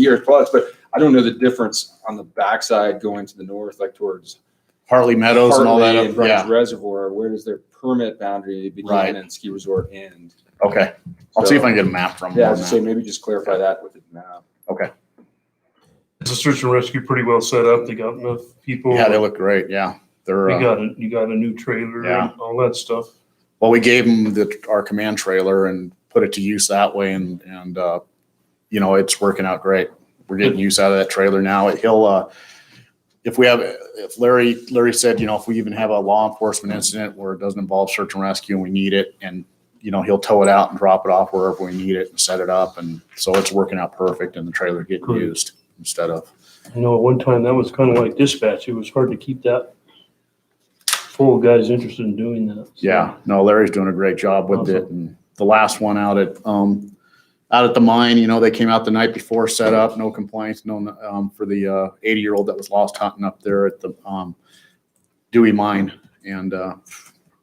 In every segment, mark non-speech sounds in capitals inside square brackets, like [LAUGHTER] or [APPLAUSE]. year plus, but I don't know the difference on the backside going to the north, like towards Hartley Meadows and all that. Hartley and up- Bryan's Yeah, Reservoir. Where does their permit boundary Right. begin and ski resort end? okay. I'll see if I can get a map from Yeah, I them. was gonna say, maybe just clarify that with the map. It's a search and rescue pretty well set up. They got enough people. Yeah, they look great, yeah. They're, You uh, got a, you got a new trailer Yeah. and all that stuff. well, we gave them the, our command trailer and put it to use that way and, and, uh, you know, it's working out great. We're getting use out of that trailer now. He'll, uh, if we have, if Larry, Larry said, you know, if we even have a law enforcement incident where it doesn't involve search and rescue and we need it and, you know, he'll tow it out and drop it off wherever we need it and set it up. And so it's working out perfect and the trailer getting Good. used instead of. You know, at one time that was kind of like dispatch. It was hard to keep that full of guys interested in doing that. So, Yeah, no, Larry's doing a great job with it. And the last one out at, um, out at the mine, you know, they came out the night before, set up, no complaints, no, um, for the, uh, eighty-year-old that was lost hunting up there at the, um, Dewey Mine and, uh,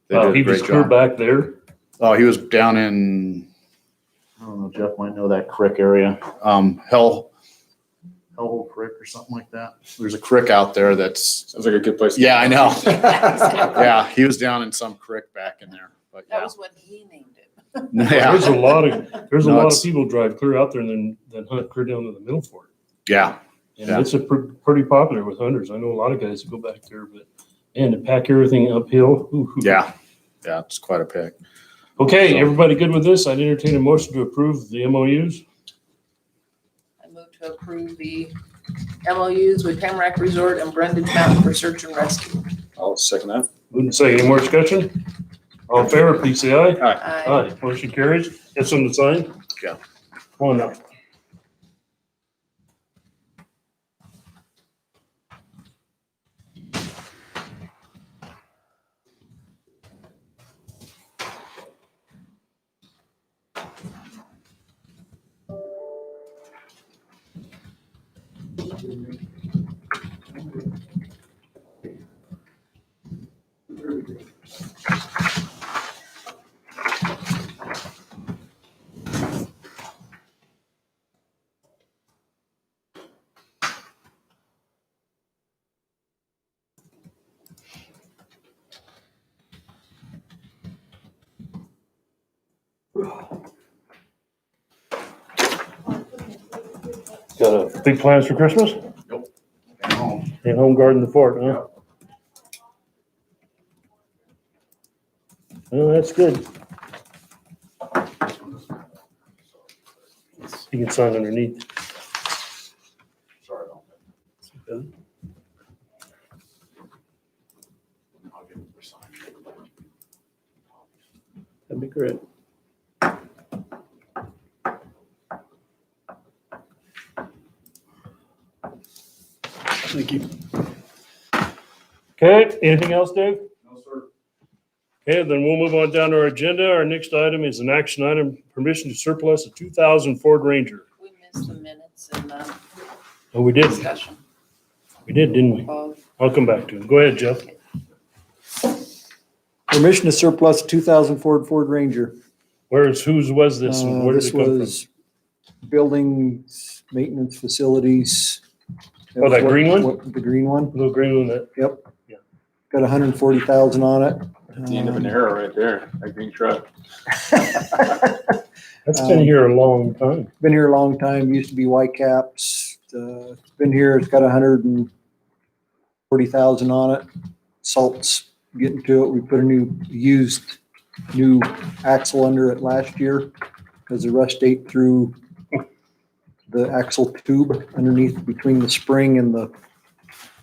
they Wow, did he a was great clear job. back there. Oh, he was down in, I don't know, Jeff might know that creek area, um, Hell, Hellhole Creek or something like that. There's a creek out there that's, Sounds like a good place. to- yeah, I know. [LAUGHS] [LAUGHS] That Yeah, he was down in some creek back in there, but yeah. was when he named it. Yeah. [LAUGHS] There's a lot of, there's a No, lot it's- of people drive clear out there and then, then hunt clear down to the middle fork. Yeah, And Yeah. it's a pr- pretty popular with hunters. I know a lot of guys that go back there, but, and to pack everything uphill. ooh, ooh. yeah, yeah. It's quite a pick. So- Okay, everybody good with this? I'd entertain a motion to approve the MOUs. I moved to approve the MOUs with Tamarack Resort and Brendan Mountain for search and rescue. I'll second that. Wouldn't say any more discussion? All in favor, please say aye. I Aye, motion carries. Got something to sign? Yeah. Come on up. Got a big plans for Christmas? And home garden the fort, huh? Well, that's good. You can sign underneath. That'd be great. Okay, anything else, Dave? No, sir. Okay, then we'll move on down to our agenda. Our next item is an action item, permission to surplus a two thousand Ford Ranger. We missed the minutes in the Oh, we did, discussion. we did, didn't we? Well, I'll come back to it. Go ahead, Jeff. Permission to surplus 2000 Ford Ford Ranger. Where is, whose was this? and Uh, Where did this it come from? was Buildings, maintenance facilities. Oh, that green one? What- The green one, Little green one that, yep. Yeah. Got 140,000 on it. At the end of an Um, arrow right there, that green truck. [LAUGHS] that's been Um, here a long time. Been here a long time, used to be White Caps. Uh, it's Been here, it's got 140,000 on it. Salt's getting to it. We put a new, used, new axle under it last year because the rust ate through the axle tube underneath between the spring and the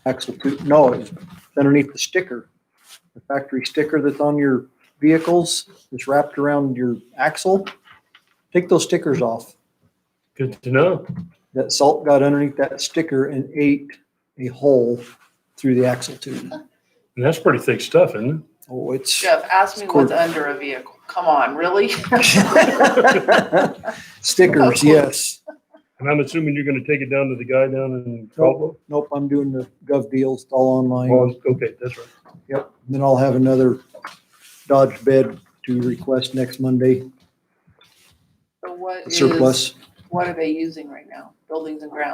axle tube. No, it's underneath the sticker. The factory sticker that's on your vehicles is wrapped around your axle. Take those stickers off Good to know. that salt got underneath that sticker and ate a hole through the axle tube. And that's pretty thick stuff, isn't Oh, it's Jeff, ask me It's cool. what's under a vehicle. Come on, really? [LAUGHS] stickers, yes. it? And I'm assuming you're gonna take it down to the guy down in Caldwell? Nope, I'm doing the gov deals it's all online. Oh, okay, that's right. Yep. Then I'll have another Dodge bed to request next Monday, So what is, surplus. What are they using right now? Buildings and grounds?